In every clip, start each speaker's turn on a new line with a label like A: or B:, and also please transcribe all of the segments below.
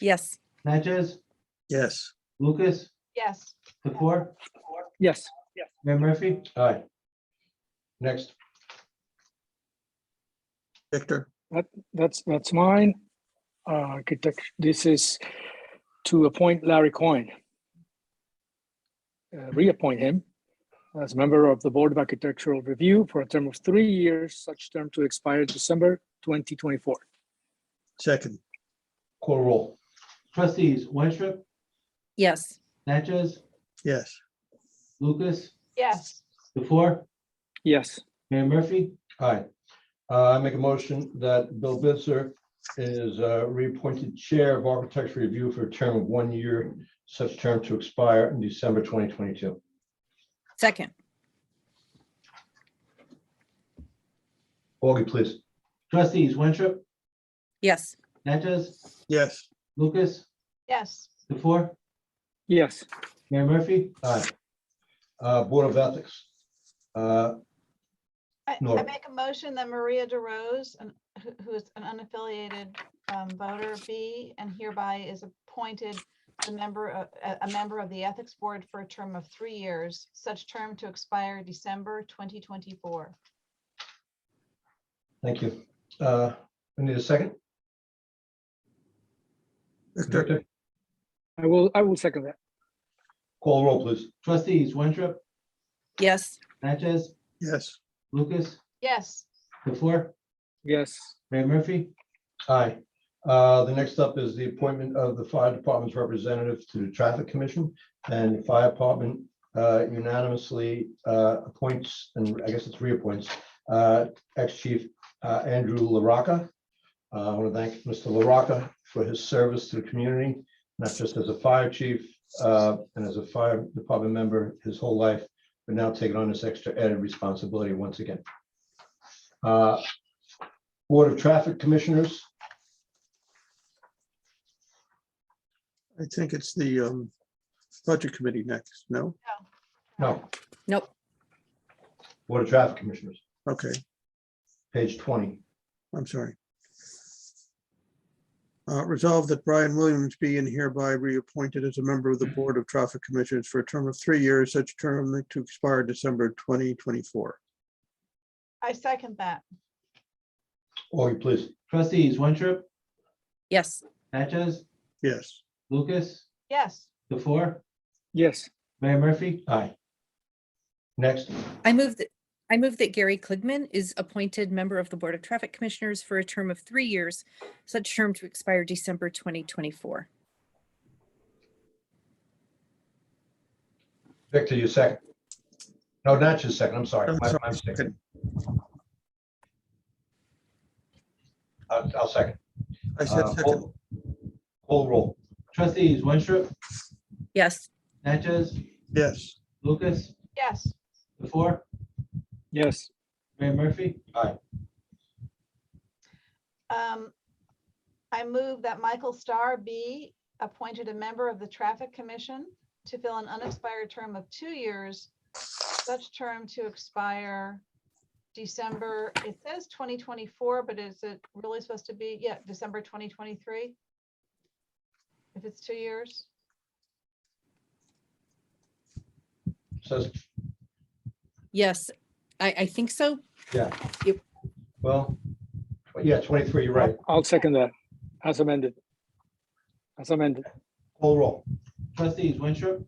A: Yes.
B: Natchez,
C: Yes.
B: Lucas,
D: Yes.
B: the four,
E: Yes.
B: Mayor Murphy?
F: Aye. Next,
C: Victor?
E: That's, that's mine. Uh, Architect, this is to appoint Larry Coyne. Uh, Reappoint him as member of the Board of Architectural Review for a term of three years, such term to expire December 2024.
C: Second.
F: call roll.
B: Trustees Winstrup,
A: Yes.
B: Natchez,
C: Yes.
B: Lucas,
D: Yes.
B: the four,
E: Yes,
B: Mayor Murphy?
F: Aye. Uh, I make a motion that Bill Bitzer is uh, reappointed Chair of Architecture Review for a term of one year, such term to expire in December 2022.
A: Second.
F: Augie, please.
B: Trustees Winstrup,
A: Yes.
B: Natchez,
C: Yes.
B: Lucas,
D: Yes.
B: the four,
E: yes,
B: Mayor Murphy?
F: Aye. Uh, Board of Ethics. Uh,
D: I, I
F: Nora.
D: make a motion that Maria DeRose, an- who- who is an unaffiliated um, voter, be and hereby is appointed a member, of- a, a member of the Ethics Board for a term of three years, such term to expire December 2024.
F: Thank you. Uh, I need a second.
C: Victor?
F: Victor,
E: I will, I will second that.
F: call roll, please.
B: Trustees Winstrup,
A: Yes.
B: Natchez,
C: Yes.
B: Lucas,
D: Yes.
B: the four,
E: Yes,
B: Mayor Murphy?
F: Aye. Uh, The next up is the appointment of the fire department's representative to the traffic commission. And the fire department uh, unanimously uh, appoints, and I guess it's reappoints, uh, ex-chief uh, Andrew LaRocca. Uh, I want to thank Mr. LaRocca for his service to the community, not just as a fire chief uh, and as a fire department member his whole life, but now taking on this extra added responsibility once again. Uh, Board of Traffic Commissioners,
C: I think it's the um, Budget Committee next. No?
F: No.
A: Nope.
F: Board of Traffic Commissioners,
C: Okay,
F: page twenty.
C: I'm sorry. Uh, Resolved that Brian Williams be and hereby reappointed as a member of the Board of Traffic Commissioners for a term of three years, such term to expire December 2024.
D: I second that.
F: Augie, please.
B: Trustees Winstrup,
A: Yes.
B: Natchez,
C: Yes.
B: Lucas,
D: Yes.
B: the four,
E: yes,
B: Mayor Murphy?
F: Aye. Next,
A: I move that, I move that Gary Kligman is appointed member of the Board of Traffic Commissioners for a term of three years, such term to expire December 2024.
F: Victor, you second. No, not your second, I'm sorry.
C: I'm
F: My-
C: sorry,
F: my mistake.
C: second.
F: I'll I'll second.
C: I said
F: Uh,
C: second.
F: Call call roll.
B: Trustees Winstrup,
A: Yes.
B: Natchez,
C: Yes.
B: Lucas,
D: Yes.
B: the four,
E: yes,
B: Mayor Murphy?
D: Um, I move that Michael Starr be appointed a member of the Traffic Commission to fill an unexpired term of two years, such term to expire December, it says 2024, but is it really supposed to be, yeah, December 2023? If it's two years?
F: Says,
A: Yes. I, I think so.
F: well, yeah, twenty-three, you're right.
E: I'll second that as amended. As amended,
F: Call roll.
B: Trustees Winstrup,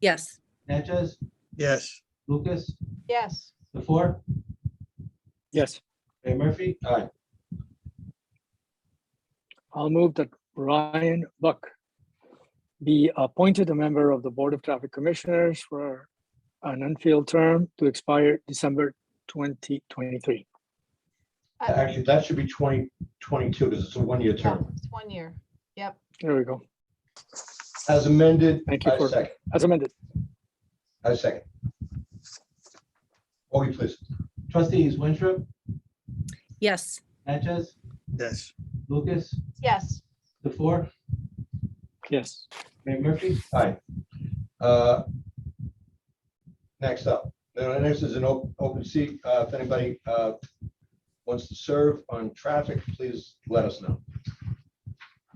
A: Yes.
B: Natchez,
C: Yes.
B: Lucas,
D: Yes.
B: the four,
E: yes.
B: Mayor Murphy?
F: Aye.
E: I'll move that Brian Buck be appointed a member of the Board of Traffic Commissioners for an unfilled term to expire December 2023.
D: I-
F: Actually, that should be twenty twenty-two because it's a one-year
D: yeah,
F: term.
D: It's one year. Yep.
E: There we go.
F: As amended,
E: Thank you
F: I
E: for,
F: second.
E: as amended.
F: I second. Augie, please.
B: Trustees Winstrup,
A: Yes.
B: Natchez,
C: Yes.
B: Lucas,
D: Yes.
B: the four,
E: Yes,
B: Mayor Murphy?
F: Aye. Uh, Next up, the next is an op- open seat. Uh, If anybody uh, wants to serve on traffic, please let us know.